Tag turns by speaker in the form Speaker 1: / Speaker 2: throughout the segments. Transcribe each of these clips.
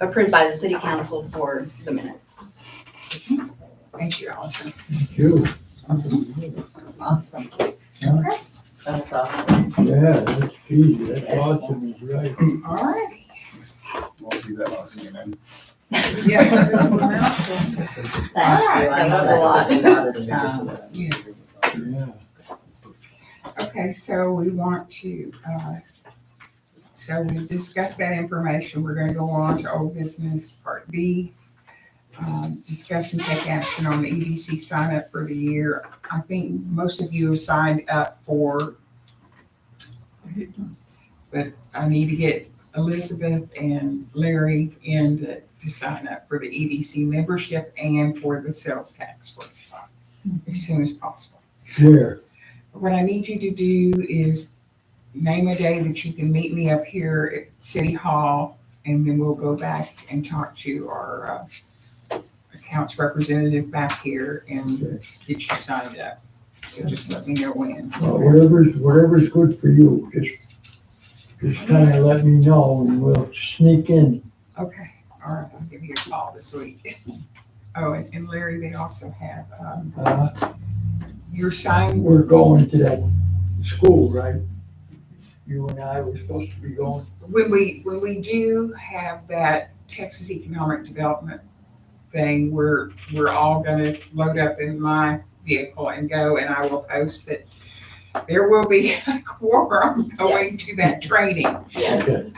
Speaker 1: approved by the city council for the minutes.
Speaker 2: Thank you, Allison.
Speaker 3: Thank you.
Speaker 2: Awesome.
Speaker 3: Yeah.
Speaker 2: Okay. That's awesome.
Speaker 3: Yeah, that's easy. That's awesome. He's right.
Speaker 2: All right.
Speaker 4: We'll see that on CNN.
Speaker 1: Thank you. I know
Speaker 2: That was a
Speaker 1: that
Speaker 2: lot of
Speaker 5: Um,
Speaker 2: time.
Speaker 3: Yeah.
Speaker 2: Okay, so we want to, uh, so we discussed that information. We're gonna go on to old business part B. Um, Discuss and take action on the EDC sign up for the year. I think most of you have signed up for. But I need to get Elizabeth and Larry in to, to sign up for the EDC membership and for the sales tax workshop as soon as possible.
Speaker 3: Here.
Speaker 2: What I need you to do is name a day that you can meet me up here at City Hall, and then we'll go back and talk to our uh, accounts representative back here and get you signed up. So just let me know when.
Speaker 3: Uh, Whatever's, whatever's good for you. Just, just kind of let me know and we'll sneak in.
Speaker 2: Okay, all right, I'll give you a call this week. Oh, and and Larry, they also have um,
Speaker 3: Uh,
Speaker 2: your sign.
Speaker 3: We're going to that school, right? You and I were supposed to be going.
Speaker 2: When we, when we do have that Texas Economic Development thing, we're, we're all gonna load up in my vehicle and go, and I will post that there will be a quorum going
Speaker 1: Yes.
Speaker 2: to that training.
Speaker 1: Yes.
Speaker 3: Okay.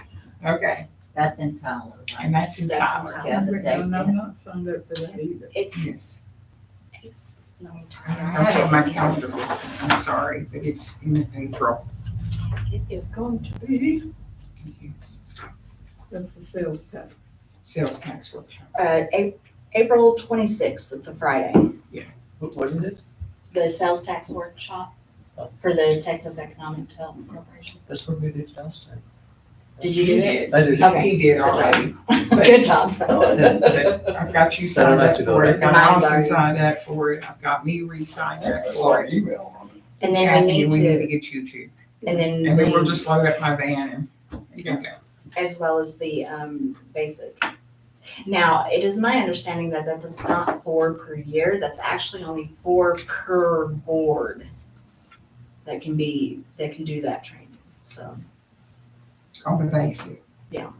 Speaker 2: Okay,
Speaker 5: That's in Tyler, right?
Speaker 2: and that's in
Speaker 1: That's in
Speaker 2: Tyler.
Speaker 1: Tyler.
Speaker 5: Yeah, the day,
Speaker 6: And I'm not signed up for that either.
Speaker 1: It's,
Speaker 2: Yes.
Speaker 1: no, I'm
Speaker 2: I
Speaker 1: tired.
Speaker 2: have it on my calendar, I'm sorry, but it's in April.
Speaker 1: It is going to be,
Speaker 6: That's the sales tax.
Speaker 2: Sales tax workshop.
Speaker 1: uh, A- April twenty-sixth, it's a Friday,
Speaker 7: What, what is it?
Speaker 1: the sales tax workshop for the Texas Economic Development Corporation.
Speaker 7: That's what we did last time.
Speaker 1: Did you do it?
Speaker 7: I did.
Speaker 1: Okay.
Speaker 2: He did already.
Speaker 1: Good job.
Speaker 2: But I've got you signed up for it, I've got
Speaker 1: Mine's
Speaker 2: Allison
Speaker 1: already-
Speaker 2: signed up for it, I've got me re-signed up
Speaker 4: I saw
Speaker 2: for
Speaker 4: an
Speaker 2: it.
Speaker 4: email on it.
Speaker 1: And then we
Speaker 2: Kathy,
Speaker 1: need
Speaker 2: We need to
Speaker 1: to,
Speaker 2: get you two,
Speaker 1: and then.
Speaker 2: and then we'll
Speaker 1: we-
Speaker 2: just load up my van and, and go.
Speaker 1: as well as the um, basic. Now, it is my understanding that that is not four per year, that's actually only four per board that can be, that can do that training, so.
Speaker 2: On the basic?
Speaker 1: Yeah.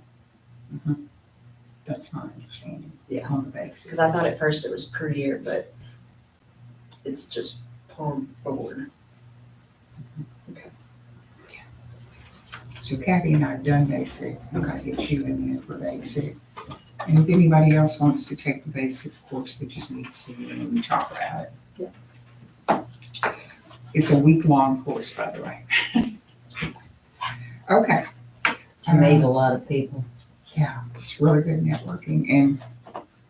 Speaker 2: Mhm. That's my understanding.
Speaker 1: Yeah.
Speaker 2: On the basic.
Speaker 1: Because I thought at first it was per year, but it's just per board.
Speaker 2: So Kathy and I have done basic. I'm gonna get you in there for basic. And if anybody else wants to take the basic course, they just need to see me and we talk about it.
Speaker 1: Yeah.
Speaker 2: It's a week-long course, by the way. Okay,
Speaker 5: to meet a lot of people.
Speaker 2: yeah, it's really good networking and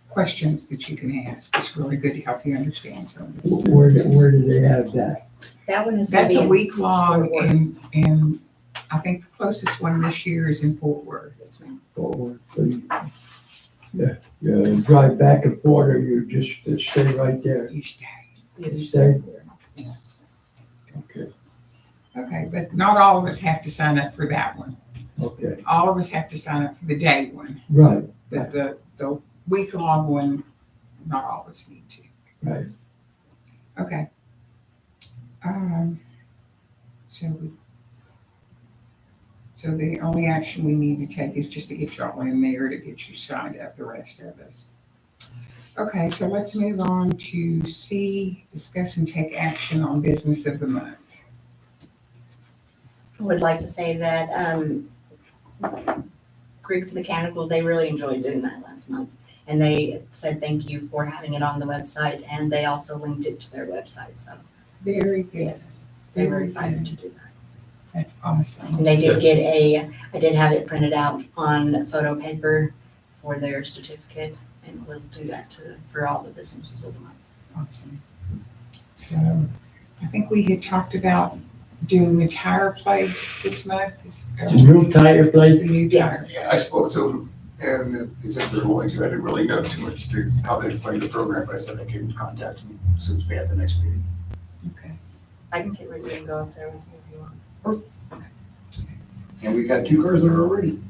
Speaker 2: questions that you can ask. It's really good to help you understand some of this. stuff.
Speaker 3: Where, where do they have that?
Speaker 1: That one is.
Speaker 2: That's a
Speaker 1: gonna be-
Speaker 2: week long
Speaker 1: Fort Worth.
Speaker 2: and, and I think the closest one this year is in Fort Worth.
Speaker 1: Yes, ma'am.
Speaker 3: Or, so you- yeah, you drive back and forth or you just stay right there?
Speaker 2: You stay.
Speaker 3: Stay there. Okay,
Speaker 2: Okay, but not all of us have to sign up for that one.
Speaker 3: okay,
Speaker 2: All of us have to sign up for the day one,
Speaker 3: right,
Speaker 2: but the, the week long one, not all of us need to.
Speaker 3: right.
Speaker 2: Okay. Um, so we, so the only action we need to take is just to get y'all in there to get you signed up, the rest of us. Okay, so let's move on to C, discuss and take action on business of the month.
Speaker 1: I would like to say that um, Griggs Mechanical, they really enjoyed doing that last month. And they said thank you for having it on the website, and they also linked it to their website, so
Speaker 2: Very good.
Speaker 1: they were excited to do that.
Speaker 2: That's awesome.
Speaker 1: And they did get a, I did have it printed out on photo paper for their certificate, and we'll do that to, for all the businesses of the month.
Speaker 2: Awesome. So I think we had talked about doing the tire place this month. is-
Speaker 3: New tire
Speaker 2: The
Speaker 3: place?
Speaker 2: new tire.
Speaker 1: Yes.
Speaker 4: Yeah, I spoke to them and they said they're willing to. I didn't really know too much to how they explained the program, but I said I can contact them since we had the next meeting.
Speaker 2: Okay.
Speaker 1: I can get ready and go up there with you if you want.
Speaker 4: And we got two cars that are already.